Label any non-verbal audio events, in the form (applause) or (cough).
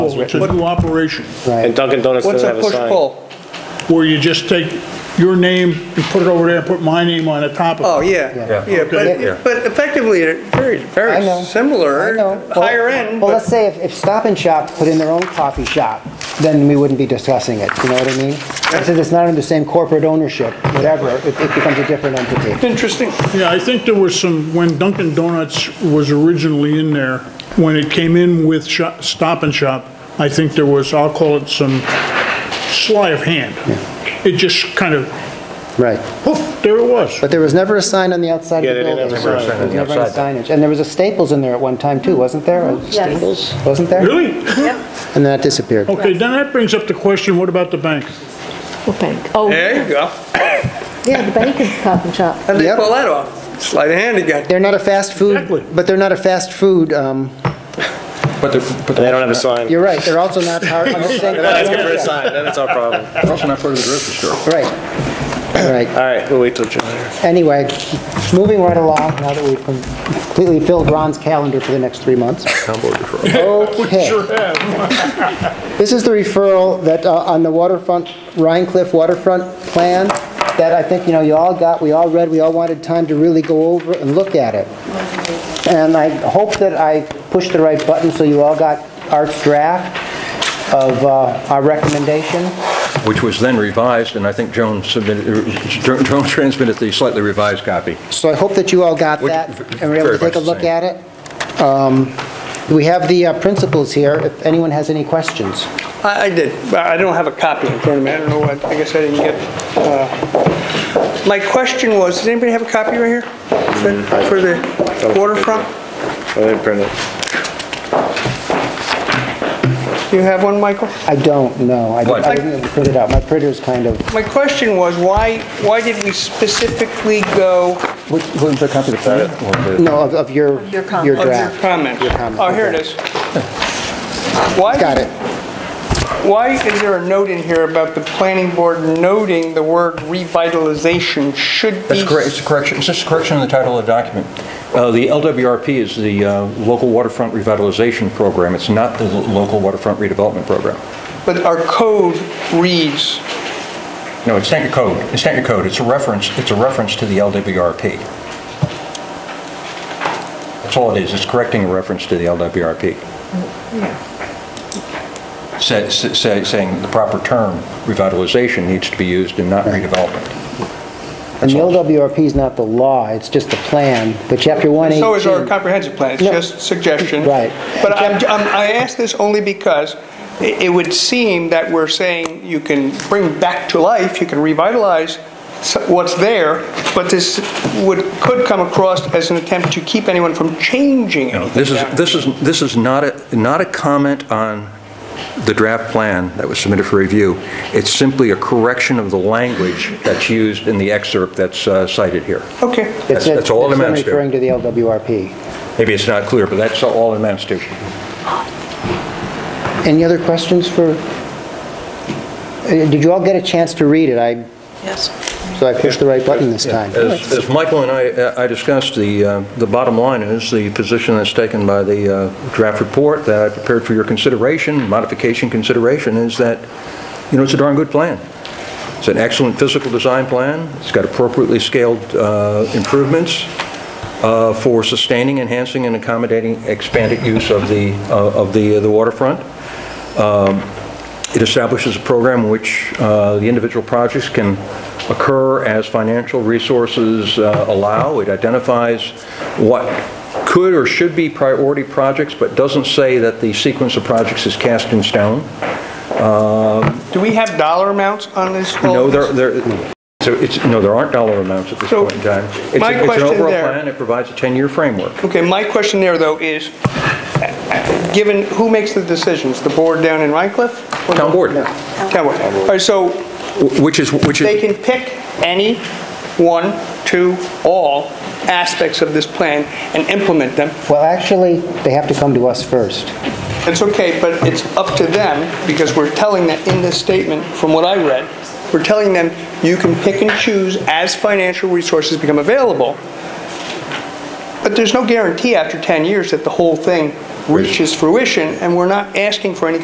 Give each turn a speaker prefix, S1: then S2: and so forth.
S1: It's
S2: It's a
S1: written.
S2: new operation,
S1: And
S3: Right,
S1: Dunkin' Donuts
S4: What's
S1: doesn't
S4: a
S1: have a sign.
S4: push-pull?
S2: where you just take your name and put it over there and put my name on the top of it.
S4: Oh, yeah,
S3: Yeah.
S4: yeah,
S2: Okay.
S4: but, but effectively, they're very,
S3: I
S4: very
S3: know. I
S4: similar,
S3: know. Well-
S4: higher end,
S3: Well, let's
S4: but
S3: say if, if Stop and Shop put in their own coffee shop, then we wouldn't be discussing it, you know what I mean? Since it's not under the same corporate ownership, whatever, it, it becomes a different entity.
S4: interesting.
S2: Yeah, I think there was some, when Dunkin' Donuts was originally in there, when it came in with Sho- Stop and Shop, I think there was, I'll call it some sleight of hand. It just kind of,
S3: Right.
S2: poof, there it was.
S3: But there was never a sign on the outside
S1: Yeah,
S3: of
S1: they
S3: the
S1: didn't
S3: building.
S1: have a sign.
S3: There was never any signage. And there was a Staples in there at one time too, wasn't there?
S5: Yes.
S3: Wasn't there?
S2: Really?
S3: And then it disappeared.
S2: Okay, then that brings up the question, what about the bank?
S5: What bank? Oh,
S4: There you go.
S5: yeah, the bank is cop and shop.
S4: How'd they
S3: Yep.
S4: pull that off? Sleight of hand again.
S3: They're not a fast
S2: Exactly.
S3: food, but they're not a fast food, um,
S6: But they're, but
S1: And they
S6: they're
S1: don't have a sign.
S3: you're right, they're also not part of the same.
S1: They're not asking for a sign, then it's our problem.
S6: also not part of the grocery store.
S3: Right, right.
S1: All right, we'll wait till July.
S3: Anyway, moving right along, now that we've completely filled Ron's calendar for the next three months.
S2: We sure
S3: Okay,
S2: have.
S3: (laughs)
S2: (laughs)
S3: this is the referral that, uh, on the waterfront, Rhine Cliff waterfront plan, that I think, you know, you all got, we all read, we all wanted time to really go over and look at it. And I hope that I pushed the right button, so you all got Art's draft of uh, our recommendation.
S6: Which was then revised, and I think Joan submitted, er, Joan transmitted the slightly revised copy.
S3: So I hope that you all got
S6: Which-
S3: that and were able to
S6: very much
S3: take a
S6: the
S3: look
S6: same.
S3: at it. Um, We have the uh, principles here, if anyone has any questions.
S4: I, I did, but I don't have a copy in front of me, I don't know what, I guess I didn't get, uh, my question was, does anybody have a copy right here? For- For the waterfront?
S1: I didn't print it.
S4: Do you have one, Michael?
S3: I don't know, I don't- I
S6: What?
S3: didn't print it out, my printer's kind of,
S4: My question was, why, why did we specifically go
S6: Was there a copy of the plan?
S3: no, of- of your, your
S5: comment.
S3: draft.
S4: of your comment?
S3: Your comment,
S4: Oh, here it
S3: okay.
S4: is. Why?
S3: Got it.
S4: Why is there a note in here about the planning board noting the word revitalization should be?
S6: That's correct, it's a correction, it's just a correction in the title of the document. Uh, The LWRP is the uh, Local Waterfront Revitalization Program, it's not the lo- Local Waterfront Redevelopment Program.
S4: But our code reads,
S6: No, it's not your code, it's not your code, it's a reference, it's a reference to the LWRP. That's all it is, it's correcting a reference to the LWRP. Say- say- Saying the proper term, revitalization, needs to be used and not redevelopment.
S3: And the LWRP is not the law, it's just the plan, but chapter 118.
S4: so is our comprehensive plan, it's
S3: No.
S4: just suggestion.
S3: Right.
S4: But I'm, I'm- I ask this only because i- it would seem that we're saying you can bring back to life, you can revitalize s- what's there, but this would, could come across as an attempt to keep anyone from changing
S6: You know,
S4: anything.
S6: This is,
S4: down.
S6: this is, this is not a, not a comment on the draft plan that was submitted for review. It's simply a correction of the language that's used in the excerpt that's uh, cited here.
S4: Okay.
S3: It's-
S6: That's that's all it
S3: it's
S6: amounts to.
S3: referring to the LWRP.
S6: Maybe it's not clear, but that's all it amounts to.
S3: Any other questions for, Uh, did you all get a chance to read it? I, so I pushed the right button this time.
S6: As as Michael and I I discussed, the uh, the bottom line is the position that's taken by the uh, draft report that I prepared for your consideration, modification consideration, is that, you know, it's a darn good plan. It's an excellent physical design plan. It's got appropriately scaled uh, improvements uh, for sustaining, enhancing, and accommodating expanded use of the uh, of the the waterfront. It establishes a program in which uh, the individual projects can occur as financial resources uh, allow. It identifies what could or should be priority projects, but doesn't say that the sequence of projects is cast in stone.
S4: Do we have dollar amounts on this? all
S6: No,
S4: of
S6: there,
S4: this?
S6: there, so it's, no, there aren't dollar amounts at this
S4: So,
S6: point in time. It's a-
S4: my
S6: It's
S4: question
S6: an overall
S4: there-
S6: plan, it provides a 10-year framework.
S4: Okay, my question there, though, is, given, who makes the decisions? The board down in Rhine Cliff? or
S6: Town
S4: the-
S6: board.
S4: No, Town board. All right, so
S6: Which is, which
S4: they
S6: is,
S4: can pick any one, two, all aspects of this plan and implement them.
S3: Well, actually, they have to come to us first.
S4: It's okay, but it's up to them, because we're telling them in this statement, from what I read, we're telling them, you can pick and choose as financial resources become available. But there's no guarantee after 10 years that the whole thing reaches fruition, and we're not asking for any